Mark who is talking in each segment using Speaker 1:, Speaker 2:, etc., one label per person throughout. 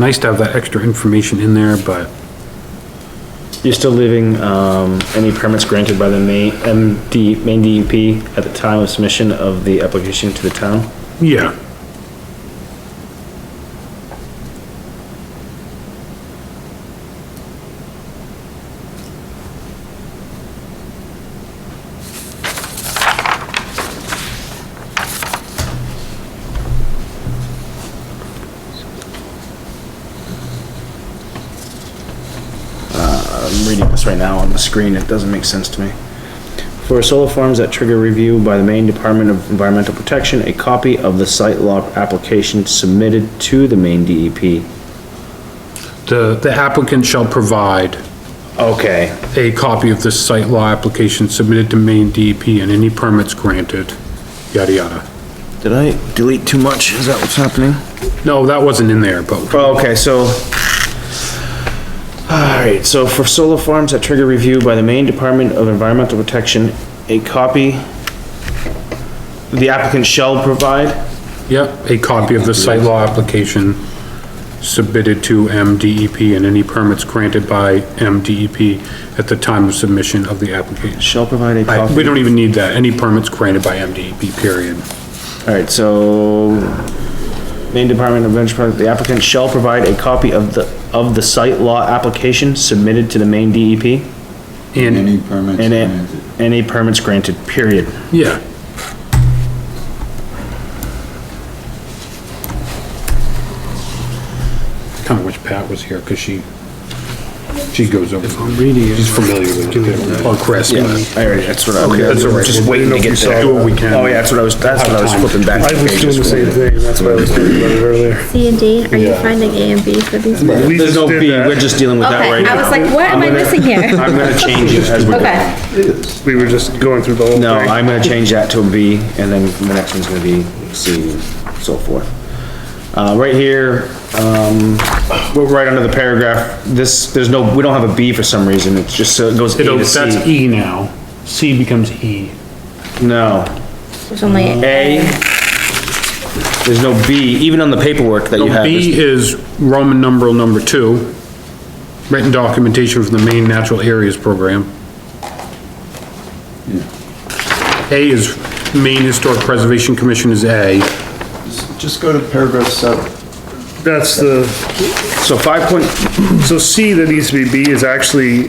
Speaker 1: Nice to have that extra information in there, but
Speaker 2: You're still leaving, um, any permits granted by the main, MD, main DEP E at the time of submission of the application to the town?
Speaker 1: yeah.
Speaker 2: I'm reading this right now on the screen, it doesn't make sense to me. For solar farms that trigger review by the Maine Department of Environmental Protection, a copy of the site law application submitted to the Maine E DEP.
Speaker 1: The, the applicant shall provide
Speaker 2: Okay,
Speaker 1: a copy of the site law application submitted to Maine DEP and any permits granted, yada, yada.
Speaker 2: did I delete too much? Is that what's happening?
Speaker 1: No, that wasn't in there, but
Speaker 2: Oh, Okay, so. Alright, so for solar farms that trigger review by the Maine Department of Environmental Protection, a copy the applicant shall provide,
Speaker 1: Yep, a copy of the site law application submitted to MDEP and any permits granted by MDEP at the time of submission of the application.
Speaker 2: shall provide a
Speaker 1: I- We
Speaker 2: copy.
Speaker 1: don't even need that, any permits granted by MDEP, period.
Speaker 2: Alright, so Maine Department of Environmental, the applicant shall provide a copy of the, of the site law application submitted to the Maine DEP
Speaker 1: And,
Speaker 3: Any permits
Speaker 2: and a-
Speaker 3: granted.
Speaker 2: any permits granted, period.
Speaker 1: yeah, kinda wish Pat was here, cause she, she goes over. I'm reading it. E. She's familiar with it, or Chris.
Speaker 2: Yeah, I already, that's what I, okay, I was
Speaker 1: that's all right.
Speaker 2: just waiting to get there.
Speaker 1: Do what we can.
Speaker 2: Oh yeah, that's what I was, that's what I was flipping back.
Speaker 4: I was doing the same thing, that's why I was thinking about it earlier.
Speaker 5: C and D, are you finding A and B for these? Okay,
Speaker 4: We
Speaker 2: There's
Speaker 4: just
Speaker 2: no
Speaker 4: did
Speaker 2: B,
Speaker 4: that.
Speaker 2: we're just dealing with that right
Speaker 5: I was
Speaker 2: now.
Speaker 5: like, what am I missing here?
Speaker 2: I'm gonna change it as we go.
Speaker 5: Okay,
Speaker 4: We were just going through the whole thing.
Speaker 2: No, I'm gonna change that to a B, and then the next one's gonna be C, and so forth. Uh, right here, um, we're right under the paragraph, this, there's no, we don't have a B for some reason, it's just, so it goes A
Speaker 1: It'll,
Speaker 2: to
Speaker 1: that's
Speaker 2: C.
Speaker 1: E now, C becomes E.
Speaker 2: No,
Speaker 5: there's only
Speaker 2: A.
Speaker 5: A.
Speaker 2: There's no B, even on the paperwork that you
Speaker 1: So
Speaker 2: have.
Speaker 1: B
Speaker 2: there's-
Speaker 1: is Roman numeral number two, written documentation from the Maine Natural Areas Program. A is Maine Historic Preservation Commission is A.
Speaker 3: Just go to paragraph seven.
Speaker 4: That's the,
Speaker 2: So five point,
Speaker 4: so C that needs to be B is actually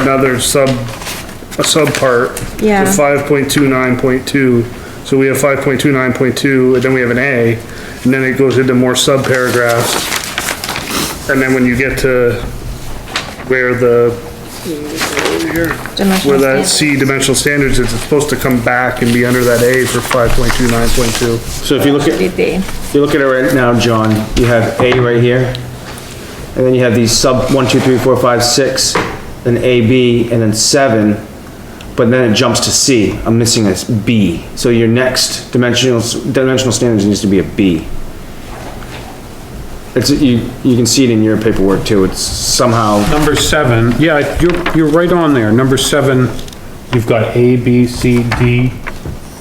Speaker 4: another sub, a subpart.
Speaker 5: Yeah.
Speaker 4: To five point two nine point two, so we have five point two nine point two, and then we have an A, and then it goes into more subparagraphs. And then when you get to where the, here, where
Speaker 5: Dimensional
Speaker 4: that
Speaker 5: standard.
Speaker 4: C dimensional standards is, it's supposed to come back and be under that A for five point two nine point two.
Speaker 2: so if you look at,
Speaker 5: Be B.
Speaker 2: If you look at it right now, John, you have A right here, and then you have these sub, one, two, three, four, five, six, then A, B, and then seven, but then it jumps to C. I'm missing this B. So your next dimensional, dimensional standards needs to be a B. It's, you, you can see it in your paperwork too, it's somehow,
Speaker 1: Number seven, yeah, you're, you're right on there. Number seven, you've got A, B, C, D,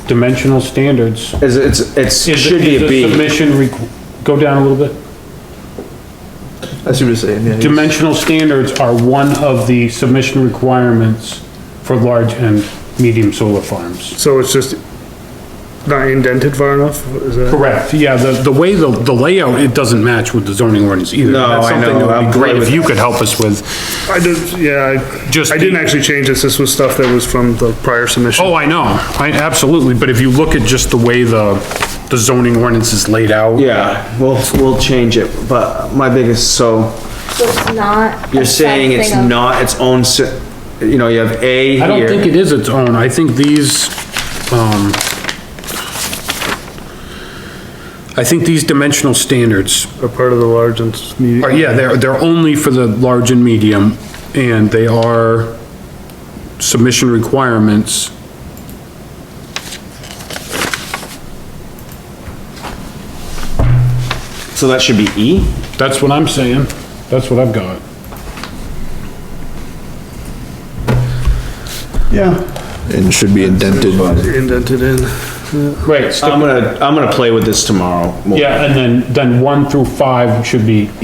Speaker 1: dimensional standards.
Speaker 2: it's, it's, it's-
Speaker 1: Is-
Speaker 2: should be
Speaker 1: is
Speaker 2: a
Speaker 1: the
Speaker 2: B.
Speaker 1: Submission, requ- go down a little bit.
Speaker 6: I see what you're saying, yeah. you-
Speaker 1: Dimensional standards are one of the submission requirements for large and medium solar farms.
Speaker 4: So it's just not indented far enough, is that?
Speaker 1: Correct, yeah, the, the way the, the layout, it doesn't match with the zoning ordinance either.
Speaker 2: No,
Speaker 1: That's
Speaker 2: I
Speaker 1: something
Speaker 2: know,
Speaker 1: that would
Speaker 2: I'm
Speaker 1: be Great
Speaker 2: great
Speaker 1: if
Speaker 2: with
Speaker 1: you could help us with,
Speaker 4: I did, yeah,
Speaker 1: Just
Speaker 4: I, I didn't
Speaker 1: the-
Speaker 4: actually change this, this was stuff that was from the prior submission.
Speaker 1: oh, I know, I, absolutely, but if you look at just the way the, the zoning ordinance is laid out.
Speaker 2: Yeah, we'll, we'll change it, but my biggest, so,
Speaker 5: So it's not.
Speaker 2: You're saying it's not its own, se- you know, you have A
Speaker 1: I don't think
Speaker 2: here.
Speaker 1: it is its own, I think these, um, I think these dimensional standards
Speaker 4: A part of the large and s- medium.
Speaker 1: Or, Oh, yeah, they're, they're only for the large and medium, and they are submission requirements.
Speaker 2: So that should be E?
Speaker 1: That's what I'm saying. That's what I've got.
Speaker 6: And should be indented.
Speaker 4: Indented in.
Speaker 1: Right.
Speaker 2: I'm gonna, I'm gonna play with this tomorrow. more.
Speaker 1: Yeah, and then, then one through five should be